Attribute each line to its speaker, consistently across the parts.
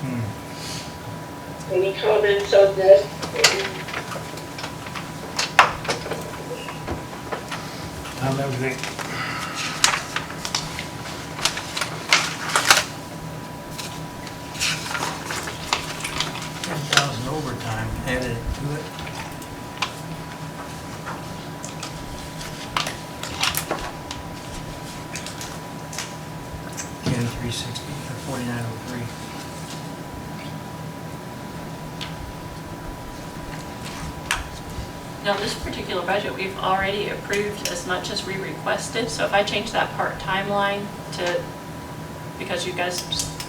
Speaker 1: Hmm.
Speaker 2: Any comments on this?
Speaker 3: I'm everything. Ten thousand overtime added to it. Ten three sixty, or forty-nine oh three.
Speaker 4: Now, this particular budget, we've already approved as much as we requested, so if I change that part-time line to, because you guys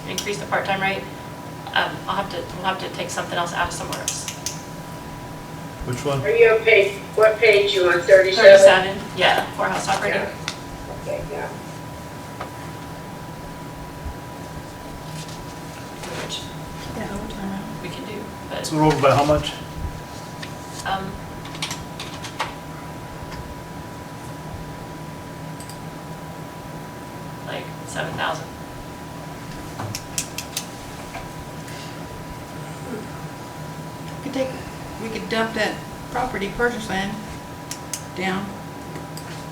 Speaker 4: increased the part-time rate, um, I'll have to, we'll have to take something else out of somewhere else.
Speaker 1: Which one?
Speaker 2: Are you on page, what page you on, 37?
Speaker 4: Thirty-seven, yeah, courthouse operating.
Speaker 2: Yeah. Okay, yeah.
Speaker 4: which We can do, but,
Speaker 1: So we're over by how much?
Speaker 4: um, like seven thousand.
Speaker 5: We could take, we could dump that property purchase land down.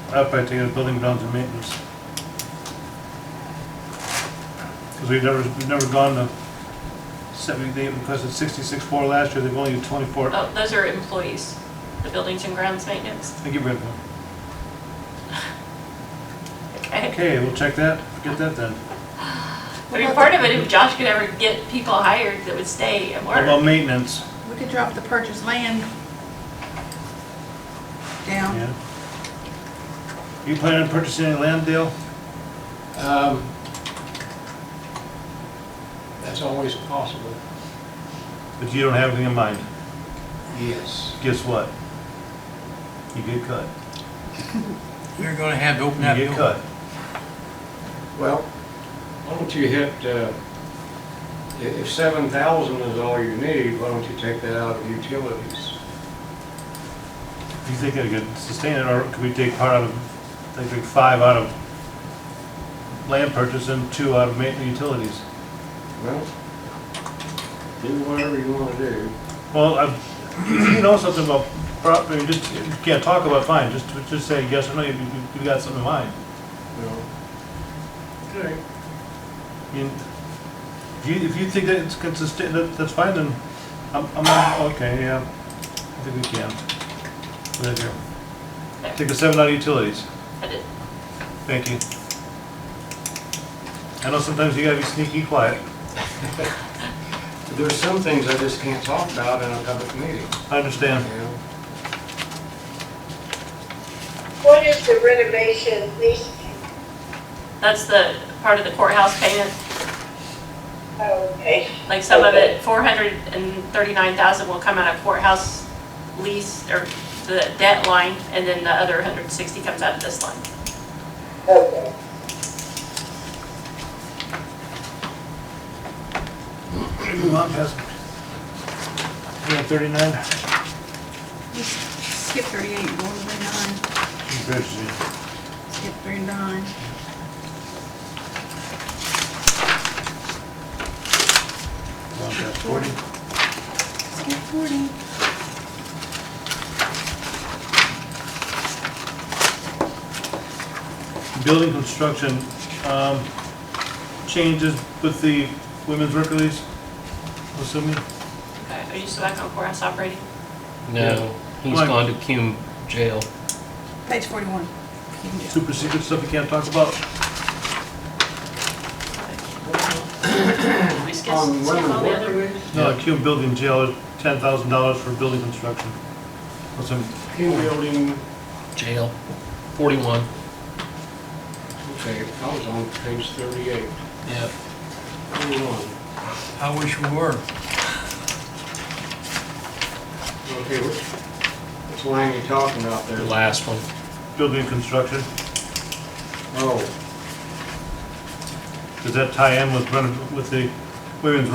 Speaker 1: I'd probably take the building down to maintenance. Because we've never, we've never gone to seventy, they requested sixty-six four last year, they've only used twenty-four.
Speaker 4: Oh, those are employees, the buildings and grounds maintenance,
Speaker 1: They get rid of them.
Speaker 4: okay?
Speaker 1: Okay, we'll check that, get that then.
Speaker 4: I mean, part of it, if Josh could ever get people hired that would stay and
Speaker 1: What
Speaker 4: work.
Speaker 1: about maintenance?
Speaker 5: We could drop the purchase land down.
Speaker 1: Yeah. You planning on purchasing any land, Dale?
Speaker 6: Um, That's always possible,
Speaker 1: But you don't have anything in mind.
Speaker 6: yes.
Speaker 1: Guess what? You get cut.
Speaker 3: You're gonna have to open that
Speaker 1: You get
Speaker 3: door.
Speaker 1: cut.
Speaker 6: Well, why don't you hit, uh, i- if 7,000 is all you need, why don't you take that out of utilities?
Speaker 1: Do you think I could sustain it, or could we take part out of, like, take five out of land purchase and two out of maintenance utilities?
Speaker 6: Well, do whatever you want to do.
Speaker 1: Well, I, if you know something about property, just, you can't talk about, it, fine, just, just say yes or no, you, you- you got something in mind.
Speaker 6: No. Okay.
Speaker 1: You- If you, if you think that it's consistent, that, that's fine, then I'm, I'm, okay, yeah, I think we can. Right here. Take the seven out of utilities.
Speaker 4: I did-
Speaker 1: Thank you. I know sometimes you gotta be sneaky quiet.
Speaker 6: There's some things I just can't talk about in a public meeting,
Speaker 1: I understand.
Speaker 6: you know?
Speaker 2: What is the renovation lease,
Speaker 4: That's the part of the courthouse payment,
Speaker 2: oh, okay,
Speaker 4: like some of it, four hundred and thirty-nine thousand will come out of courthouse lease or the debt line, and then the other hundred and sixty comes out of this line.
Speaker 2: okay.
Speaker 1: Move on past. Yeah, thirty-nine.
Speaker 5: Just skip thirty-eight, go to thirty-nine, skip thirty-nine.
Speaker 1: Forty.
Speaker 5: Skip forty.
Speaker 1: Building construction, um, changes with the women's work release, assuming?
Speaker 4: Okay, are you still back on courthouse operating?
Speaker 7: No, he's
Speaker 1: Why?
Speaker 7: gone to Cume jail.
Speaker 5: Page forty-one. You can do it.
Speaker 1: Super secret stuff you can't talk about?
Speaker 4: We skip skip all
Speaker 6: On women
Speaker 4: the
Speaker 6: work
Speaker 4: other.
Speaker 6: release,
Speaker 1: No, Cume Building Jail is ten thousand dollars for building construction. What's in,
Speaker 6: team building,
Speaker 7: Jail. 41.
Speaker 6: okay, I was on page 38,
Speaker 7: Yeah.
Speaker 6: 41.
Speaker 3: I wish we were.
Speaker 6: Okay, which, which line you talking about there?
Speaker 7: The last one.
Speaker 1: building construction,
Speaker 6: Oh.
Speaker 1: does that tie in with, reno- with the women's